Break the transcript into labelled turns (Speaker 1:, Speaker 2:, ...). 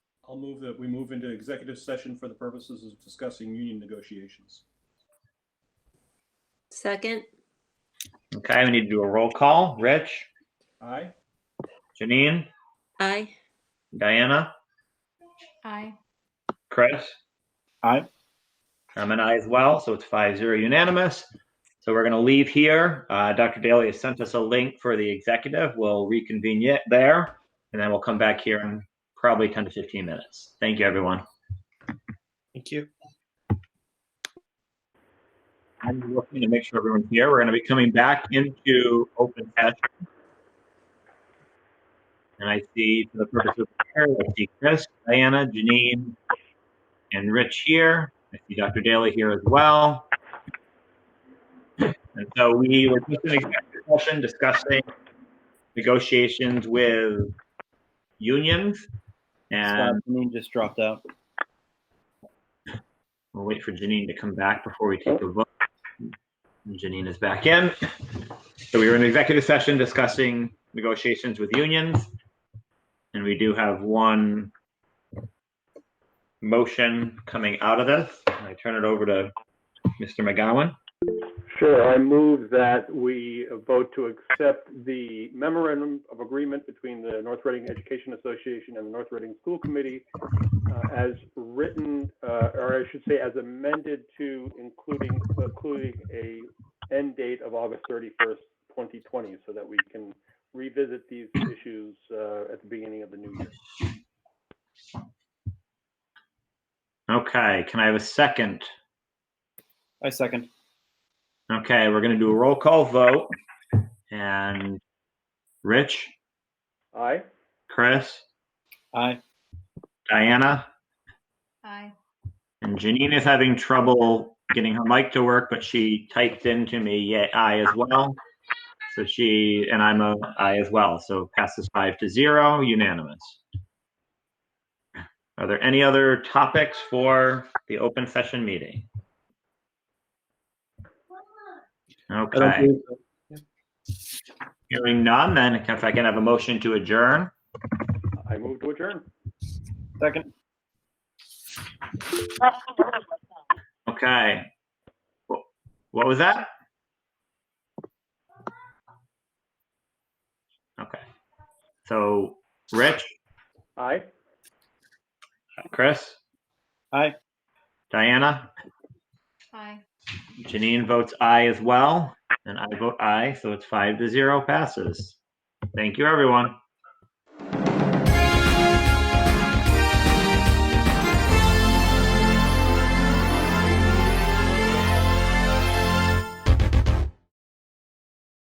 Speaker 1: I'll move that we move into executive session for the purposes of discussing union negotiations.
Speaker 2: Second,
Speaker 3: Okay, we need to do a roll call. Rich,
Speaker 1: Aye?
Speaker 3: Janine,
Speaker 2: aye.
Speaker 3: Diana,
Speaker 4: Aye.
Speaker 3: Chris.
Speaker 5: Aye.
Speaker 3: I'm an aye as well, so it's five zero unanimous. So we're going to leave here. Uh, Dr. Daly has sent us a link for the executive. We'll reconvene it there, and then we'll come back here in probably 10 to 15 minutes. Thank you, everyone.
Speaker 5: Thank you.
Speaker 3: I'm looking to make sure everyone's here. We're going to be coming back into open session. And I see, for the purpose of the chair, I see Chris, Diana, Janine, and Rich here. I see Dr. Daly here as well. And so we were just in executive session discussing negotiations with unions.
Speaker 5: Scott,
Speaker 3: And
Speaker 5: Janine just dropped out.
Speaker 3: We'll wait for Janine to come back before we take a vote. Janine is back in. So we were in executive session discussing negotiations with unions. And we do have one motion coming out of this. And I turn it over to Mr. McGowan.
Speaker 6: Sure, I move that we vote to accept the memorandum of agreement between the North Reading Education Association and the North Reading School Committee uh, as written, uh, or I should say as amended to including, including a end date of August 31st, 2020, so that we can revisit these issues uh, at the beginning of the new year.
Speaker 3: Okay, can I have a second?
Speaker 5: I second.
Speaker 3: Okay, we're going to do a roll call vote. And Rich,
Speaker 6: Aye?
Speaker 3: Chris,
Speaker 5: Aye.
Speaker 3: Diana,
Speaker 4: Aye.
Speaker 3: And Janine is having trouble getting her mic to work, but she typed into me, yeah, I as well. So she, and I'm a I as well. So passes five to zero, unanimous. Are there any other topics for the open session meeting?
Speaker 5: I don't
Speaker 3: Okay,
Speaker 5: believe so.
Speaker 3: hearing none, then if I can have a motion to adjourn.
Speaker 6: I move to adjourn.
Speaker 5: Second.
Speaker 3: Okay. Wh- What was that? Okay. So, Rich,
Speaker 6: Aye?
Speaker 3: Chris,
Speaker 5: Aye.
Speaker 3: Diana,
Speaker 4: Aye.
Speaker 3: Janine votes aye as well, and I vote aye, so it's five to zero passes. Thank you, everyone.